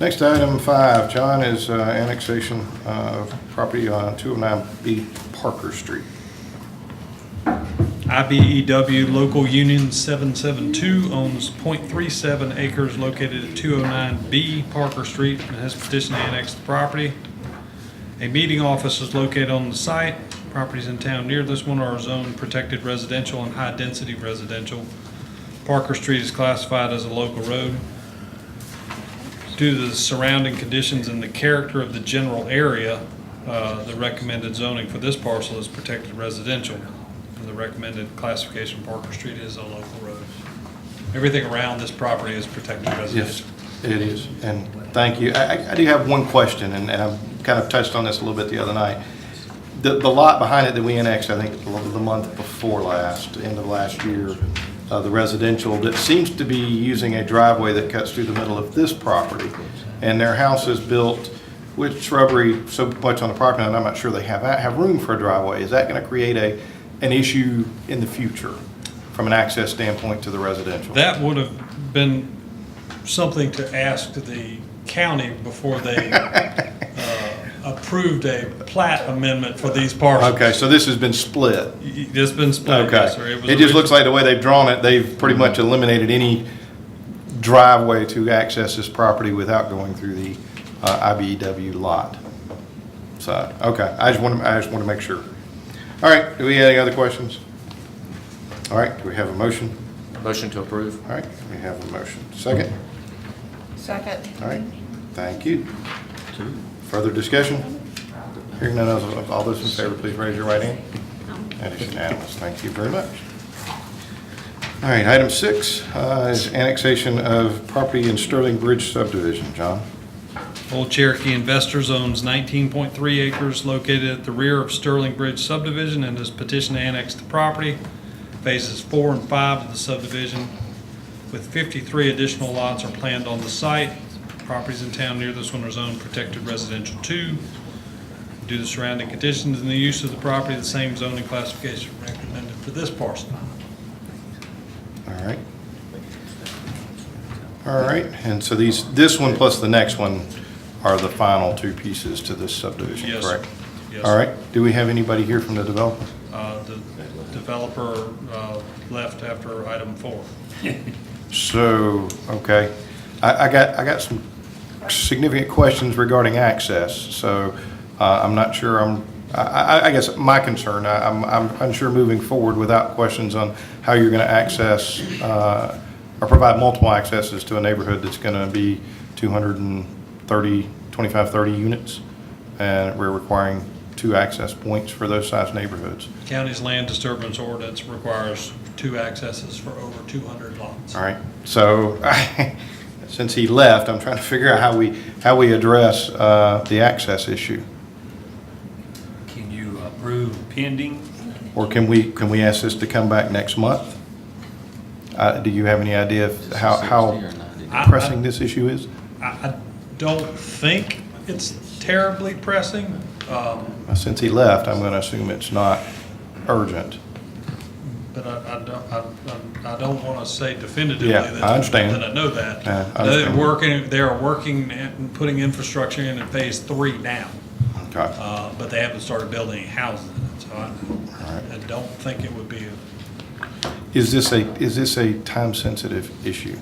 Next item five, John, is uh, annexation uh, of property on 209B Parker Street. IBEW E Local Union 772 owns .37 acres located at 209B Parker Street and has petitioned to annex the property. A meeting office is located on the site. Properties in town near this one are zoned protected residential and high-density residential. Parker Street is classified as a local road. Due to the surrounding conditions and the character of the general area, uh, the recommended zoning for this parcel is protected residential. And The recommended classification, Parker Street is a local road. Everything around this property is protected residential. It is, and thank you. I, I- I do have one question, and and I've kind of touched on this a little bit the other night. The, the lot behind it that we annexed, I think, the the month before last, end of last year, uh, the residential, that seems to be using a driveway that cuts through the middle of this property. And their house is built with shrubbery so much on the property, and I'm not sure they have, have room for a driveway. Is that going to create a, an issue in the future from an access standpoint to the residential? That would have been something to ask the county before they uh, approved a plat amendment for these parcels. Okay, so this has been split? It's been split, Okay. yes, sir. was It just orig- looks like the way they've drawn it, they've pretty much eliminated any driveway to access this property without going through the uh, IBEW lot. So, okay, I just want to, I just want to make sure. All right, do we have any other questions? All right, do we have a motion? Motion to approve. All right, we have a motion. Second? Second. All right, thank you. Further discussion? Hearing none, of all those in favor, please raise your right hand. That is unanimous, thank you very much. All right, item six uh, is annexation of property in Sterling Bridge subdivision, John. Old Cherokee Investors owns 19.3 acres located at the rear of Sterling Bridge subdivision and has petitioned to annex the property. Phases four and five of the subdivision with 53 additional lots are planned on the site. Properties in town near this one are zoned protected residential two. Due to surrounding conditions and the use of the property, the same zoning classification recommended for this parcel. All right. All right, and so these, this one plus the next one are the final two pieces to this subdivision, Yes, sir. correct? Yes, All sir. right, do we have anybody here from the developer? Uh, The developer uh, left after item four. So, okay, I, I got, I got some significant questions regarding access, so uh, I'm not sure, I'm, I, I- I guess my concern, I- I'm, I'm unsure moving forward without questions on how you're going to access uh, or provide multiple accesses to a neighborhood that's going to be 230, 25, 30 units, and we're requiring two access points for those size neighborhoods. County's land disturbance ordinance requires two accesses for over 200 lots. All right, so since he left, I'm trying to figure out how we, how we address uh, the access issue. Can you approve pending? Or can we, can we ask this to come back next month? Uh, Do you have any idea of how, how pressing this issue is? I, I don't think it's terribly pressing, um, Since he left, I'm going to assume it's not urgent. but I, I don't, I, I- I don't want to say definitively Yeah, I that. understand. That I know that. Yeah, I They're understand. working, they're working and putting infrastructure in in phase three now, Okay, all uh, but they haven't started building any houses in it, so I, I don't think it would be, a- is this a, is this a time-sensitive issue?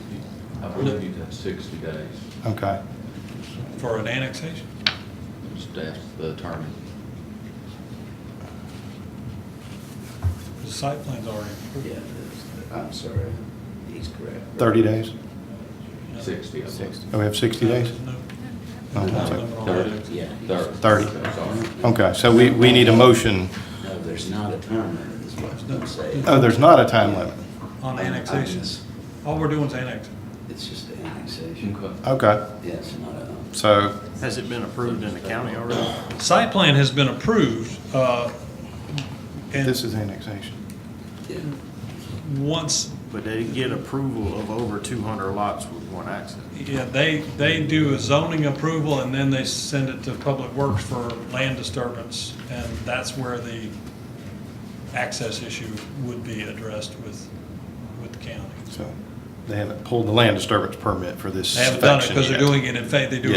I believe you have sixty days, Okay, for an annexation. staff, the attorney. The site plan's already approved. Yeah, I'm sorry, he's correct. 30 days? Sixty, I believe. Oh, we have 60 days? No, No, no that's it. limit on Thirty. that. Yeah. Thirty. Thirty. I'm sorry. Okay, so we, we need a motion. No, there's not a time limit, is what I'm saying. Oh, there's not a time limit? On annexations. All we're doing is annexing. It's just an annexation. Okay, Yeah, it's not a, so Has it been approved in the county already? Site plan has been approved, uh, This is and annexation. yeah, once, But they get approval of over 200 lots with one access. yeah, they, they do a zoning approval, and then they send it to Public Works for land disturbance, and that's where the access issue would be addressed with, with the county. So they haven't pulled the land disturbance permit for this They haven't done it section because they're yet. doing it in fact, they do it